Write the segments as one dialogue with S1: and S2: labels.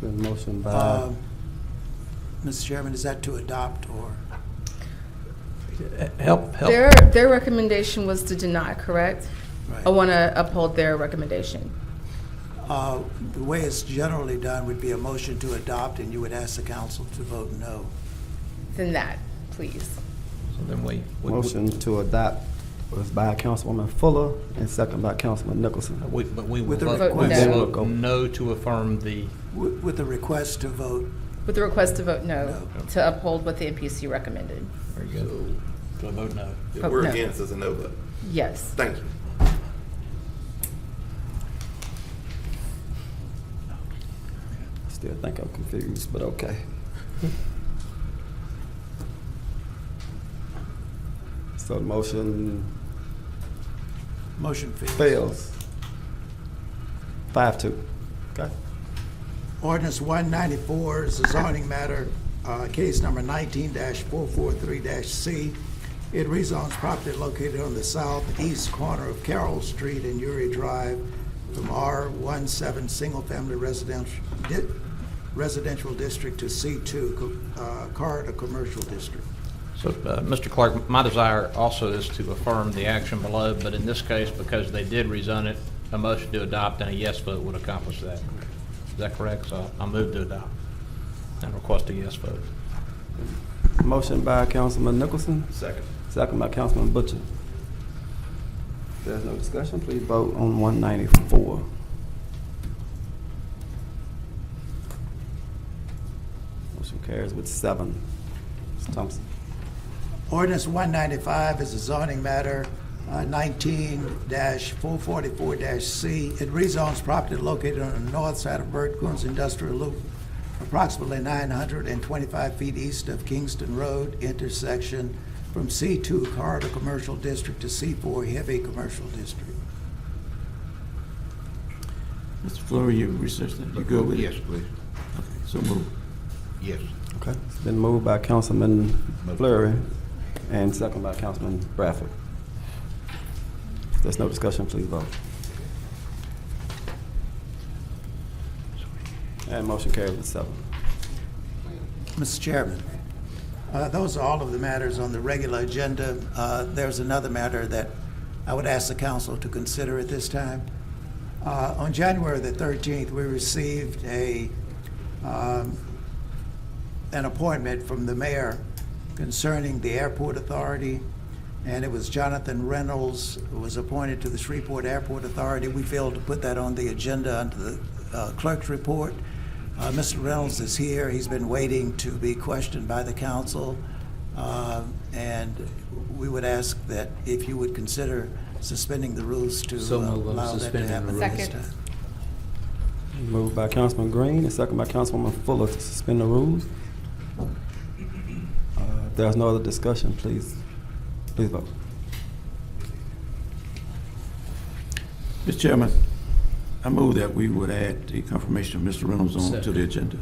S1: The motion by,
S2: Um, Mr. Chairman, is that to adopt or?
S3: Help, help.
S4: Their, their recommendation was to deny, correct?
S2: right?
S4: I want to uphold their recommendation.
S2: Uh, The way it's generally done would be a motion to adopt, and you would ask the council to vote no.
S4: Then that, please.
S3: So then we. we- we-
S1: motion to adopt was by Councilwoman Fuller and second by Councilman Nicholson.
S3: uh, we- But we will
S2: With the
S3: vote, we
S4: request-
S3: will
S1: Vote
S3: vote no to affirm the,
S2: Wi- With a request to vote,
S4: With the request to vote no,
S3: No.
S4: to uphold what the NPC recommended.
S3: very good, to a vote no.
S5: If
S4: Oh,
S5: we're
S4: no.
S5: against, it's a no vote.
S4: Yes.
S5: Thank you.
S1: Still think I'm confused, but okay. So the motion
S2: motion fails.
S1: fails. Five two. Okay.
S2: Ordinance 194 is a zoning matter, uh, case number 19-443-C. It rezones property located on the southeast corner of Carroll Street and Uri Drive from R17 Single Family Residential Di- Residential District to C2 co- uh, Corridor Commercial District.
S3: So, uh, Mr. Clark, my desire also is to affirm the action below, but in this case, because they did rezone it, a motion to adopt and a yes vote would accomplish that. Is that correct? So I move to adopt and request a yes vote.
S1: Motion by Councilman Nicholson,
S5: Second.
S1: second by Councilman Butcher. If There's no discussion, please vote on one ninety-four. Motion carries with seven. Ms. Thompson.
S2: Ordinance 195 is a zoning matter, uh, 19-444-C. It rezones property located on the north side of Bert Coons Industrial Loop, approximately 925 feet east of Kingston Road intersection, from C2 Corridor Commercial District to C4 Heavy Commercial District.
S6: Mr. Flurry, you researched that, you go with it?
S7: Yes, please.
S6: So move.
S7: Yes.
S1: Okay. It's been moved by Councilman Fleury and second by Councilman Bradford. If There's no discussion, please vote. And motion carries with seven.
S2: Mr. Chairman, uh, those are all of the matters on the regular agenda. Uh, There's another matter that I would ask the council to consider at this time. Uh, On January the 13th, we received a, um, an appointment from the mayor concerning the airport authority, and it was Jonathan Reynolds who was appointed to the Shreveport Airport Authority. We failed to put that on the agenda under the uh, clerk's report. Uh, Mr. Reynolds is here. He's been waiting to be questioned by the council. Um, And we would ask that if you would consider suspending the rules to
S3: So moved on
S2: allow that to
S3: suspending the
S2: happen
S4: rules.
S2: this
S4: Second.
S2: time.
S1: Moved by Councilman Green and second by Councilwoman Fuller to suspend the rules. Uh, If there's no other discussion, please, please vote.
S6: Mr. Chairman, I move that we would add the confirmation of Mr. Reynolds on to the agenda.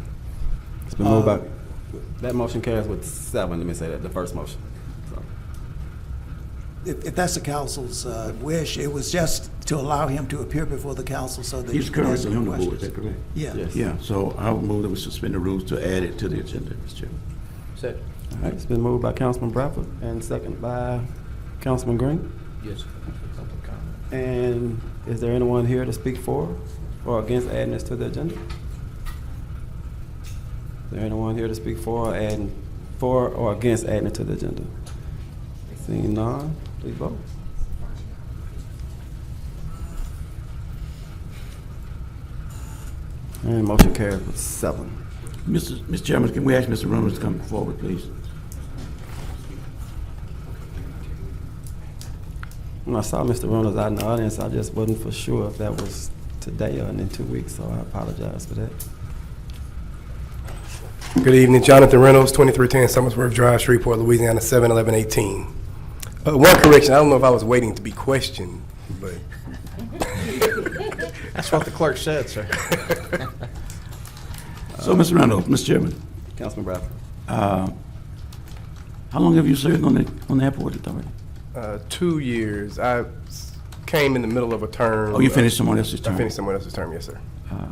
S1: It's been moved by, Uh, that motion carries with seven, let me say that, the first motion. So,
S2: If, if that's the council's uh, wish, it was just to allow him to appear before the council so that.
S6: He's
S2: you can ask
S6: currently on the board,
S2: questions.
S6: is that correct?
S2: Yeah.
S1: Yes.
S6: Yeah, so I would move that we suspend the rules to add it to the agenda, Mr. Chairman.
S3: Second.
S1: All right, it's been moved by Councilman Bradford and second by Councilman Green.
S3: Yes. Public comment.
S1: And is there anyone here to speak for or against adding this to the agenda? Is there anyone here to speak for or adding, for or against adding it to the agenda? Seeing none, please vote. And motion carries with seven.
S6: Mr. Mr. Chairman, can we ask Mr. Reynolds to come forward, please?
S1: When I saw Mr. Reynolds out in the audience, I just wasn't for sure if that was today or in two weeks, so I apologize for that.
S8: Good evening, Jonathan Reynolds, 2310 Summersworth Drive, Shreveport, Louisiana, 71118. Uh, One correction, I don't know if I was waiting to be questioned, but
S3: That's what the clerk said, sir.
S6: So, Mr. Reynolds, Mr. Chairman,
S1: Councilman Bradford.
S6: uh, how long have you served on the, on the airport authority?
S8: uh, two years, I s- came in the middle of a term.
S6: Oh, you finished someone else's
S8: I
S6: term?
S8: finished someone else's term, yes, sir.
S6: Uh,